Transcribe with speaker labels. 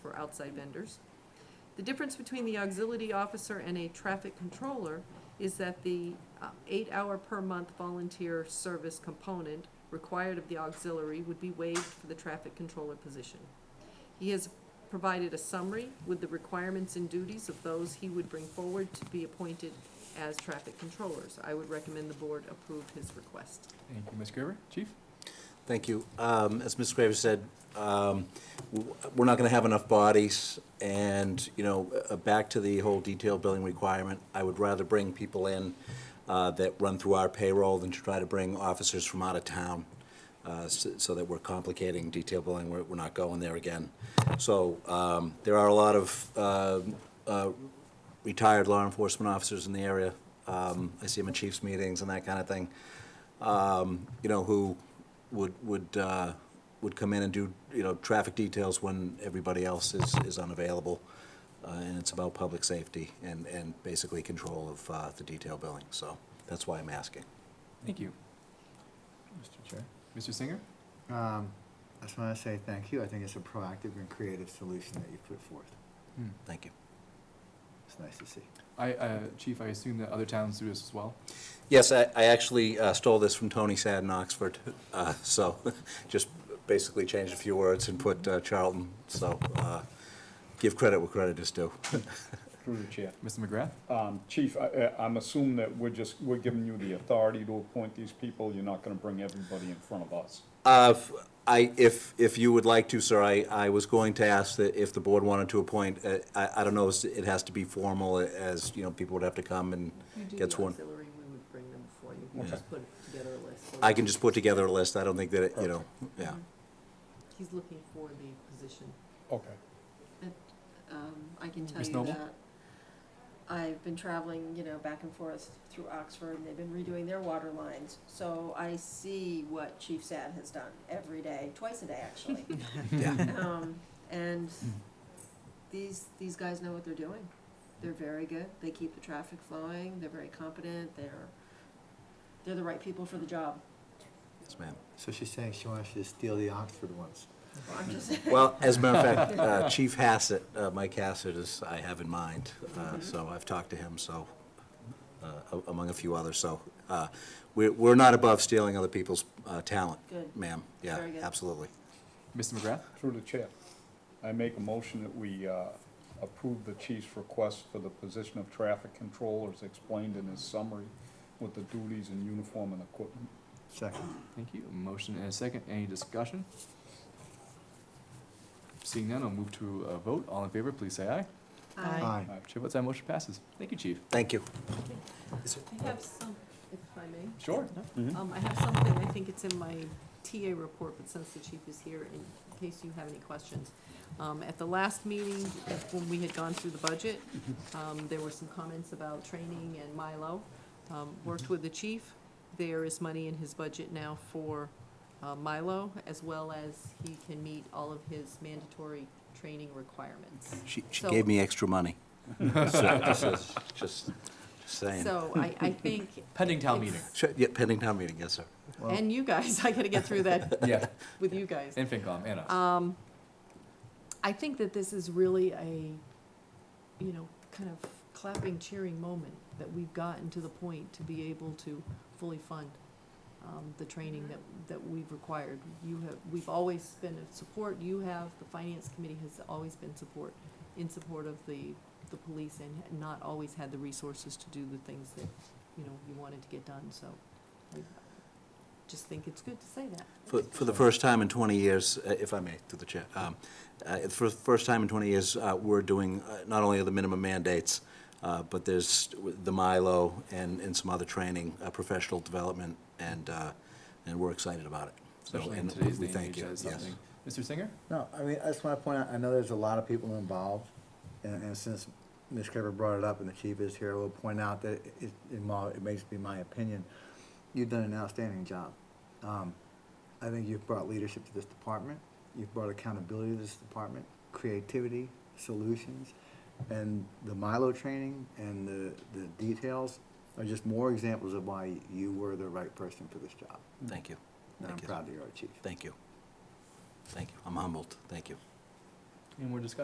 Speaker 1: outside vendors. The difference between the auxiliary officer and a traffic controller is that the uh, eight-hour per month volunteer service component required of the auxiliary would be waived for the traffic controller position. He has provided a summary with the requirements and duties of those he would bring forward to be appointed as traffic controllers. I would recommend the board approve his request.
Speaker 2: Thank you, Ms. Gerber. Chief?
Speaker 3: Thank you. Um, As Ms. Graves said, um, w- we're not going to have enough bodies, and, you know, uh, back to the whole detail billing requirement, I would rather bring people in uh, that run through our payroll than to try to bring officers from out of town, uh, s- so that we're complicating detail billing, we're we're not going there again. So um, there are a lot of um, uh, retired law enforcement officers in the area. Um, I see them in chiefs' meetings and that kind of thing um, you know, who would, would, uh, would come in and do, you know, traffic details when everybody else is, is unavailable. Uh, and it's about public safety and, and basically control of, uh, the detail billing, so that's why I'm asking.
Speaker 2: Thank you. Mr. Chair? Mr. Singer?
Speaker 4: Um, I just want to say thank you. I think it's a proactive and creative solution that you put forth.
Speaker 2: Hmm.
Speaker 3: Thank you.
Speaker 4: It's nice to see.
Speaker 2: I, uh, Chief, I assume that other towns do this as well?
Speaker 3: Yes, I, I actually uh, stole this from Tony Sad in Oxford, uh, so just basically changed a few words and put uh, Charlton, so, uh, give credit where credit is due.
Speaker 5: Through the chair.
Speaker 2: Mr. McGrath?
Speaker 5: Um, Chief, I, I- I'm assuming that we're just, we're giving you the authority to appoint these people. You're not gonna bring everybody in front of us.
Speaker 3: Uh, if I, if, if you would like to, sir, I, I was going to ask that if the board wanted to appoint, uh, I, I don't know, it has to be formal uh, as, you know, people would have to come and get sworn.
Speaker 1: auxiliary, we would bring them before you.
Speaker 3: We'll just
Speaker 1: put together a list.
Speaker 3: I can just put together a list, I don't think that, it you know, yeah.
Speaker 6: Um,
Speaker 1: He's looking for the position.
Speaker 5: Okay.
Speaker 6: Um, I can tell
Speaker 2: Ms.
Speaker 6: you
Speaker 2: Noble?
Speaker 6: that I've been traveling, you know, back and forth through Oxford, and they've been redoing their water lines. So I see what Chief Sad has done every day, twice a day, actually. Um, and these, these guys know what they're doing. They're very good. They keep the traffic flowing. They're very competent. They're, they're the right people for the job.
Speaker 3: Yes, ma'am.
Speaker 4: So she's saying she wants you to steal the Oxford ones.
Speaker 6: Well, I'm just,
Speaker 3: Well, as a matter of fact, uh, Chief Hassett, uh, Mike Hassett is, I have in mind, uh, so I've talked to him, so, uh, a- among a few others, so, uh, we're, we're not above stealing other people's, uh, talent,
Speaker 6: Good.
Speaker 3: ma'am, yeah,
Speaker 6: Very good.
Speaker 3: absolutely.
Speaker 2: Mr. McGrath?
Speaker 5: Through the chair. I make a motion that we, uh, approve the chief's request for the position of traffic controller as explained in his summary with the duties and uniform and equipment.
Speaker 4: Second.
Speaker 2: Thank you. A Motion and a second. Any discussion? Seeing none, I'll move to a vote. All in favor, please say aye.
Speaker 6: I-
Speaker 4: Aye.
Speaker 2: Chair votes aye, motion passes. Thank you, Chief.
Speaker 3: Thank you.
Speaker 1: I have some, if I may.
Speaker 2: Sure.
Speaker 1: Um, I have something, I think it's in my TA report, but since the chief is here, in case you have any questions. Um, at the last meeting, when we had gone through the budget, um, there were some comments about training and Milo. Um, worked with the chief, there is money in his budget now for, uh, Milo, as well as he can meet all of his mandatory training requirements.
Speaker 3: She, she
Speaker 1: So-
Speaker 3: gave me extra money. So, Just, just- just saying.
Speaker 1: So I, I think,
Speaker 2: Pending town meeting.
Speaker 3: Sure, yeah, pending town meeting, yes, sir.
Speaker 4: Well,
Speaker 1: and you guys, I gotta get through that
Speaker 2: Yeah,
Speaker 1: with you guys.
Speaker 2: and FinCom, and us.
Speaker 1: Um, I think that this is really a, you know, kind of clapping, cheering moment, that we've gotten to the point to be able to fully fund, um, the training that, that we've required. You have, we've always been in support, you have, the finance committee has always been support, in support of the, the police and had not always had the resources to do the things that, you know, you wanted to get done, so I just think it's good to say that.
Speaker 3: For, for the first time in 20 years, uh, if I may, through the chair, um, uh, for the first time in 20 years, uh, we're doing, uh, not only are the minimum mandates, uh, but there's the Milo and, and some other training, uh, professional development, and, uh, and we're excited about it. So,
Speaker 2: Especially in
Speaker 3: and
Speaker 2: today's
Speaker 3: we
Speaker 2: day and
Speaker 3: thank
Speaker 2: age,
Speaker 3: you,
Speaker 2: that is
Speaker 3: yes.
Speaker 2: something. Mr. Singer?
Speaker 4: no, I mean, I just want to point out, I know there's a lot of people involved, and, and since Ms. Kerber brought it up and the chief is here, we'll point out that it, it, in my- it may just be my opinion, you've done an outstanding job. Um, I think you've brought leadership to this department, you've brought accountability to this department, creativity, solutions, and the Milo training and the, the details are just more examples of why you were the right person for this job.
Speaker 3: Thank you,
Speaker 4: And I'm
Speaker 3: Thank you.
Speaker 4: proud that you're our chief.
Speaker 3: thank you. Thank you, I'm humbled, thank you.
Speaker 2: Any more discussion?